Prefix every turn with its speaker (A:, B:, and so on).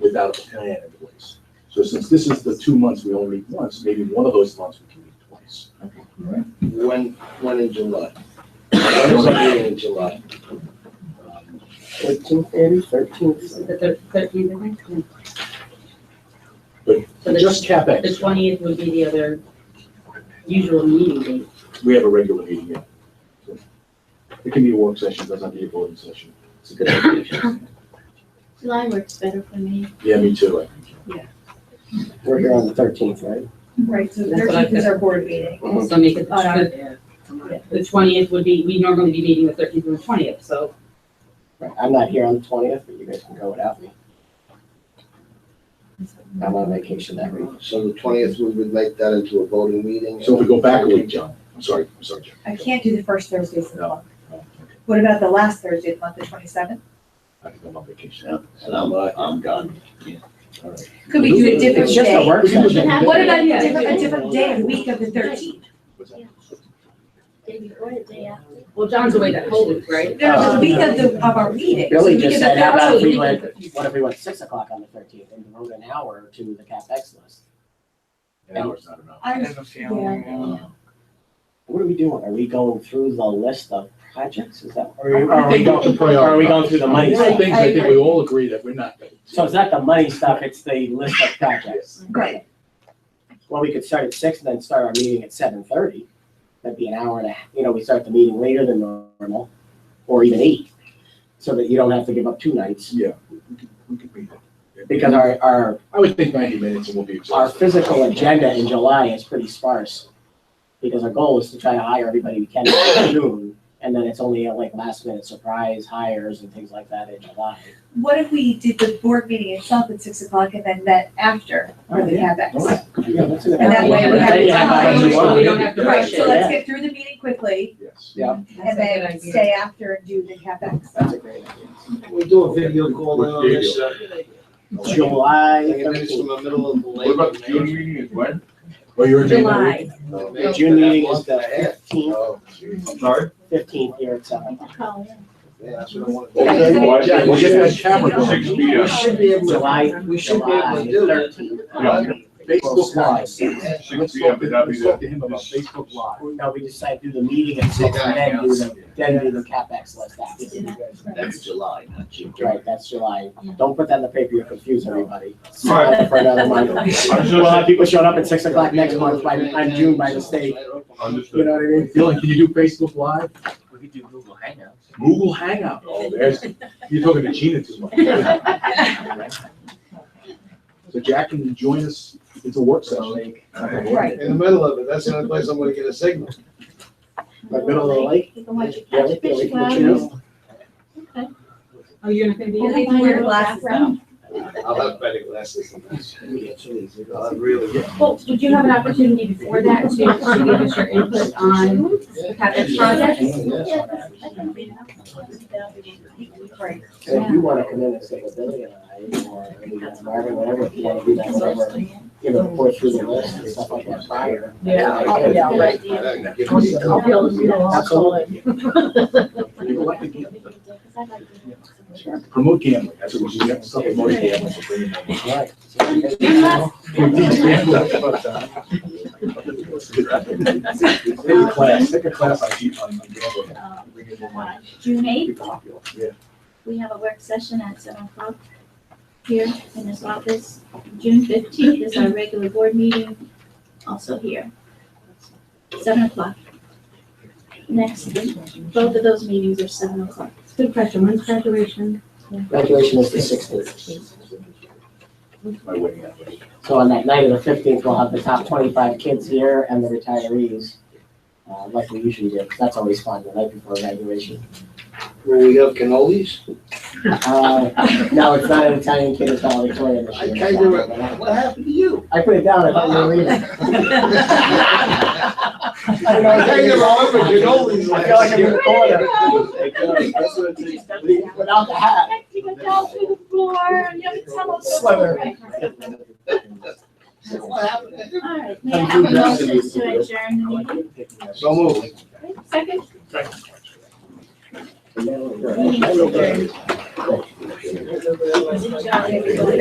A: it out of the plan at least. So since this is the two months we only meet once, maybe one of those months we can meet twice.
B: When, when in July? When is the meeting in July?
A: Um,
C: Fourteenth, maybe, thirteenth.
D: The thir- thirteenth, I think.
A: But
D: So the,
A: Just CapEx,
D: the twentieth would be the other usual meeting date.
A: we have a regular meeting, yeah. So It can be a work session, doesn't have to be a voting session. It's a good idea.
E: July works better for me.
A: Yeah, me too. I think.
C: We're here on the thirteenth, right?
F: Right, so
D: That's what I
F: thirteenth is our board meeting.
C: Mhm.
D: So make it,
F: Oh, no.
D: the- the twentieth would be, we normally be meeting the thirteenth and the twentieth, so
C: Right, I'm not here on the twentieth, but you guys can go without me. I'm on vacation that week.
B: So the twentieth, we would make that into a voting meeting.
A: So if we go back a week, John, I'm sorry, I'm sorry, John.
F: I can't do the first Thursdays of the
A: No.
F: month.
A: Oh, okay.
F: What about the last Thursday of the month, the twenty-seventh?
A: I think I'm on vacation.
G: Yeah, and I'm, I'm gone.
A: All right.
F: Could we do a different
C: It's just a
F: day?
C: work
A: We can do
C: session.
A: that.
F: What about a
D: Yeah.
F: different, a different day, the week of the thirteenth?
A: What's that?
E: Day before the day after.
D: well, John's away that whole week, right?
F: No, the
C: Um,
F: week of the, of our meeting. so
C: Billy
F: the
C: just
F: week of
C: said,
F: the
C: how about if we
F: 13th.
C: went, what if we went six o'clock on the thirteenth and wrote an hour to the CapEx list?
A: An hour's not enough.
F: I'm-
C: What are we doing? Are we going through the list of projects? Is that?
A: I
C: Or are we
A: think
C: going,
A: Uh, we can
C: or are we going through the money
A: These are
C: stuff?
A: things I think we all agree that we're not.
C: So it's not the money stuff, it's the list of projects.
F: Right,
C: Well, we could start at six and then start our meeting at seven thirty. That'd be an hour and a, half. you know, we start the meeting later than normal, or even eight. So that you don't have to give up two nights,
A: Yeah. we could- we could be there.
C: because our, our,
A: I would think ninety minutes and we'll be
C: our
A: exhausted.
C: physical agenda in July is pretty sparse. Because our goal is to try to hire everybody we can in June, and then it's only uh, like last minute surprise hires and things like that in July.
F: what if we did the board meeting itself at six o'clock and then met after for the
C: Oh, yeah.
F: CapEx?
A: Alright,
C: Yeah, that's an-
F: And that way we
C: Then you
F: have
C: about
F: time.
C: what you want.
D: We don't have to
F: Right,
D: rush
F: so
D: it.
F: let's get through the meeting quickly
A: Yes.
C: Yeah.
F: and then stay after and do the CapEx.
C: That's a great idea.
H: We do a video call in on this, uh,
C: July
B: Taking this from
C: thirteenth.
B: the middle of the lake.
G: What about June meeting is when?
A: Well, you're in January.
D: July,
B: No,
C: The
B: May,
C: June
B: but that
C: meeting is
B: month
C: the
B: and a half.
C: fifteenth,
B: Oh, geez.
G: I'm sorry?
C: fifteenth here at seven.
E: I can call in.
B: Yeah, that's what I wanted.
F: Okay.
A: Yeah, we'll get that camera
G: Six
A: going.
G: P M.
H: we should be able to, we should be able to do that.
G: Yeah.
A: Facebook Live.
G: Six
A: Let's
G: P M,
A: talk
G: but that'd be
A: let's talk
G: the.
A: to him about Facebook Live.
C: No, we decide do the meeting at six, and then do the, then do the CapEx list after.
B: That's July, not June.
C: Right, that's July. Don't put that in the paper, you'll confuse everybody.
G: All right.
C: For another month.
G: I was
C: We'll have
G: just,
C: people showing up at six o'clock next month by, on June by mistake, you
G: understood.
C: know what I mean?
A: Dylan, can you do Facebook Live?
I: We could do Google Hangouts.
A: Google Hangout. Oh, there's, you're talking to Gina too much. So Jack can join us. It's a work session.
F: Right.
B: In the middle of it, that's the only place I'm gonna get a signal.
C: But middle of the lake,
E: You can watch your
C: yeah,
E: catch
C: we can, we
E: fish
C: can
E: flowers.
C: choose.
E: Okay.
D: oh, you're not gonna be
F: We'll
D: here?
F: be wearing glasses though.
B: I'll have better glasses than this. I'll have really. good-
D: Well, would you have an opportunity before that to, to give us your input on the CapEx project?
E: Yeah, that's- that can be enough.
F: Right.
C: And if you wanna come in and say, well, Billy and I, or anyone, Marvin, whatever, if you wanna do that, whatever, you know, report through the list and stuff like that prior.
D: Yeah.
C: Okay.
D: Yeah, right.
B: I'll give you-
D: I'll be able to do that.
C: Absolutely.
A: People like to gamble.
E: Because I like to-
A: Promote gambling. That's what we should have. Stop promoting gambling. We're bringing that up.
C: Right.
A: Teach gambling. Take a class, take a class on cheat on on gambling.
E: Um,
A: Bring in more money.
E: uh, June
A: Be
E: eighth,
A: popular. Yeah.
E: we have a work session at seven o'clock here in this office. June fifteenth is our regular board meeting, also here, seven o'clock. Next, both of those meetings are seven o'clock.
D: Good question, when's graduation?
C: Graduation is the sixteenth.
A: My wedding anniversary.
C: So on that night of the fifteenth, we'll have the top twenty-five kids here and the retirees, uh, like we usually do. That's always fun, the night before graduation.
B: Will we have cannolis?
C: Uh, no, it's not an Italian kid, it's valedictorian this
B: I
C: year.
B: kind of, what happened to you?
C: I put it down, I thought you were reading. it.
B: I kind of remember cannolis
C: I feel like
B: last
C: I'm in
B: year.
C: the corner without the hat.
E: You can go through the floor, you have to tell us.
C: Sweater.
B: What happened to you?
E: All right, may I have a motion to adjourn the meeting?
B: So moved.
E: Second?
B: Thank you.
E: Good job, everybody.